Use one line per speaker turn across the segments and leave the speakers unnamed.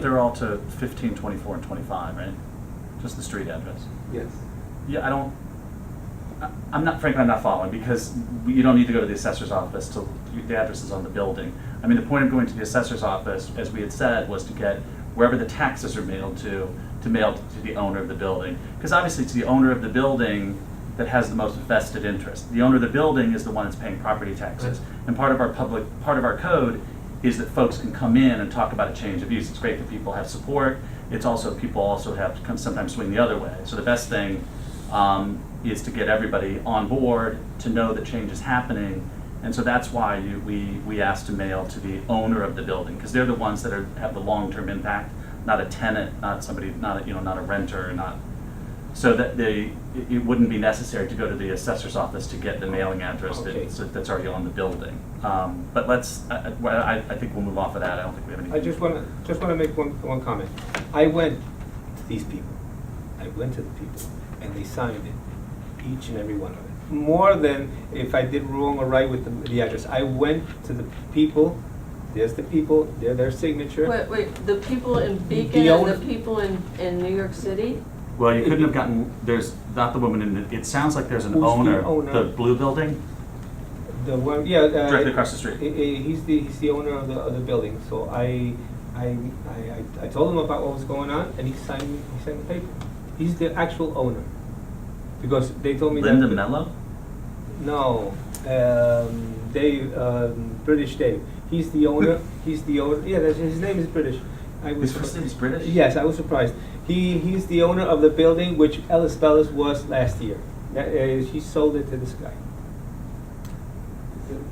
They're all to 15, 24, and 25, right? Just the street address.
Yes.
Yeah, I don't, I- I'm not, frankly, I'm not following, because you don't need to go to the assessor's office to, the address is on the building. I mean, the point of going to the assessor's office, as we had said, was to get wherever the taxes are mailed to, to mail to the owner of the building. Because obviously, it's the owner of the building that has the most vested interest. The owner of the building is the one that's paying property taxes. And part of our public, part of our code is that folks can come in and talk about a change of use. It's great that people have support. It's also, people also have, come sometimes swing the other way. So the best thing um, is to get everybody on board, to know that change is happening. And so that's why you, we, we asked to mail to the owner of the building, because they're the ones that are, have the long-term impact, not a tenant, not somebody, not, a you know, not a renter, not, so that they, it- it wouldn't be necessary to go to the assessor's office to get the mailing address
Okay.
that's, that's already on the building. Um, But let's, I, I- well, I, I think we'll move off of that, I don't think we have any.
I just want to, just want to make one, one comment. I went to these people, I went to the people, and they signed it, each and every one of it. More than if I did wrong or right with the, the address. I went to the people, there's the people, they're their signature.
Wait, wait, the people in Beacon
The
and
owner-
the people in, in New York City?
Well, you couldn't have gotten, there's, not the woman in, the- it sounds like there's an
Who's the
owner,
owner?
the blue building,
The one, yeah. uh,
directly across the street.
he- he- He's the, he's the owner of the, of the building, so I, I, I, I- I told him about what was going on, and he signed, he signed the paper. He's the actual owner, because they told me that.
Linda Mello?
No, um, Dave, um, British Dave. He's the owner. he's the owner. Yeah, that's, his name is British. I was
His first name is British?
Yes, I was surprised. He he's the owner of the building which Ellis Bellis was last year. That, uh, she sold it to this guy.
Is it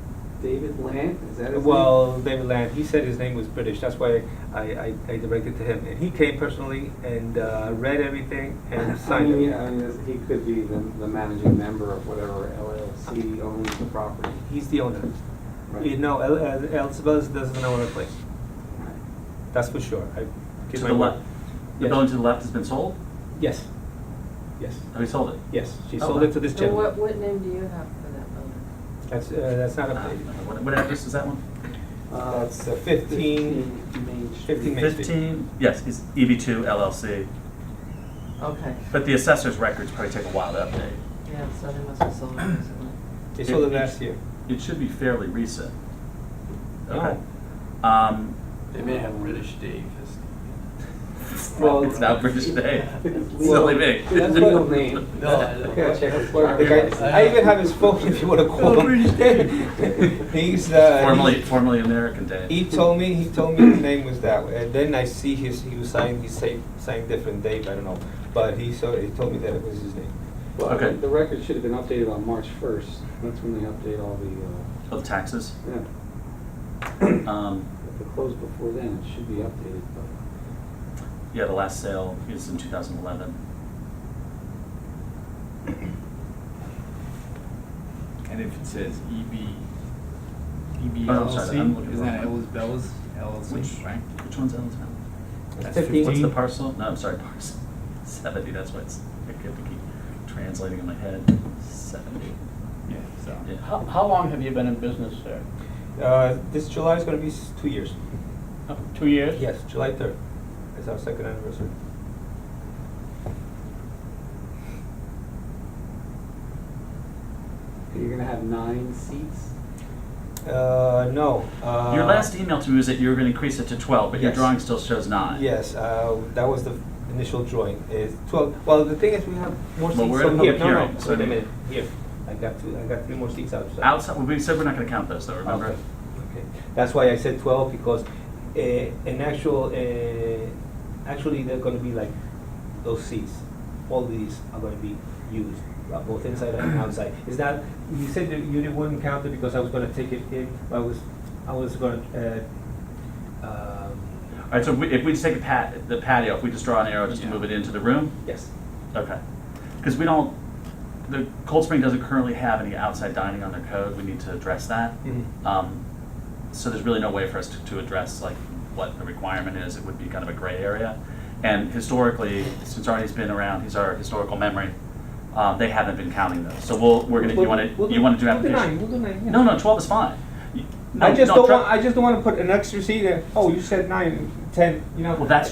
David Lamp, is that his name?
Well, David Land. He said his name was British. That's why I, I, I directed to him, and he came personally and uh, read everything and
I
signed
mean,
it.
I mean, this- he could be the, the managing member of whatever LLC owns the property.
He's the owner.
Right.
You know, El- El- Ellis Bellis doesn't own a place.
Right.
That's for sure. I
To
give
the
my word.
left, the
Yes.
building to the left has been sold?
Yes. Yes.
Have we sold it?
Yes. She
Oh,
sold it to this
So what,
gentleman.
what name do you have for that building?
That's, uh, that's not
Uh,
updated.
What what address is that one?
Uh,
That's uh, fifteen,
15 Main Street.
15 Main Street.
Fifteen, yes, it's EB two LLC,
Okay,
but the assessor's records probably take a while to update.
yeah, so they must have sold it recently.
they sold it last year.
It should be fairly recent. Okay.
No.
Um,
They may have British Dave as
Well,
it's not British Day, it's
Well,
silly me.
That's legal name.
No, I
I
don't.
gotta check his
The
driver's
guy- I even have his phone if you wanna call him. He's, uh.
Formerly,
he's-
formerly American Day.
He told me, he told me his name was that way, and then I see his, he was signed, he signed, signed different date, I don't know, but he saw, he told me that it was his name.
Well,
Okay.
The record should have been updated on March first, that's when they update all the,
Of taxes.
uh, yeah,
Um,
if it closed before then, it should be updated, but.
yeah, the last sale is in two thousand eleven.
And if it says E EB, EB
Oh, I'm sorry, I'm looking
LLC, isn't that
wrong.
Ellis Bells
Which,
LLC, right?
which one's Ellis Mountain?
That's
Fifteen.
What's
15.
the parcel? No, I'm sorry, parcel. Seventy, that's why it's, I have to keep translating in my head. Seventy.
Yeah, so.
Yeah.
How, how long have you been in business there?
Uh, this July is gonna be s- two years.
Uh, Two years?
Yes, July third is our second anniversary.
You're gonna have nine seats?
Uh, no, uh.
Your last email to me was that you were gonna increase it to twelve, but your
Yes.
drawing still shows nine.
Yes, uh, that was the initial drawing, is twelve, well, the thing is, we have more
Well,
seats
we're in
over
public
here, no,
hearing,
no,
so
wait
they-
a minute, here, I got two, I got three more seats outside.
Outside, well, we said we're not gonna count those though, remember?
Okay, okay. that's why I said twelve, because, uh, in actual, uh, actually, they're gonna be like those seats, all these are gonna be used, uh, both inside and outside, is that, you said that you didn't, wouldn't count it because I was gonna take it in, I was, I was gonna, uh, um,
Alright, so if we, if we just take a pat, the patio, if we just draw an arrow just to
Yeah.
move it into the room?
yes.
Okay. Because we don't, the Cold Spring doesn't currently have any outside dining on their code, we need to address that. Um, so there's really no way for us to, to address like what the requirement is. It would be kind of a gray area. And historically, since Arnie's been around, he's our historical memory. Um, they haven't been counting those. So we'll, we're gonna, you wanna, you wanna do application?
We'll do nine, we'll do nine, yeah.
No, no, twelve is fine. You- No,
I just
no,
don't
try-
want, I just don't wanna put an extra seat in, oh, you said nine, ten, you know?
Well, that's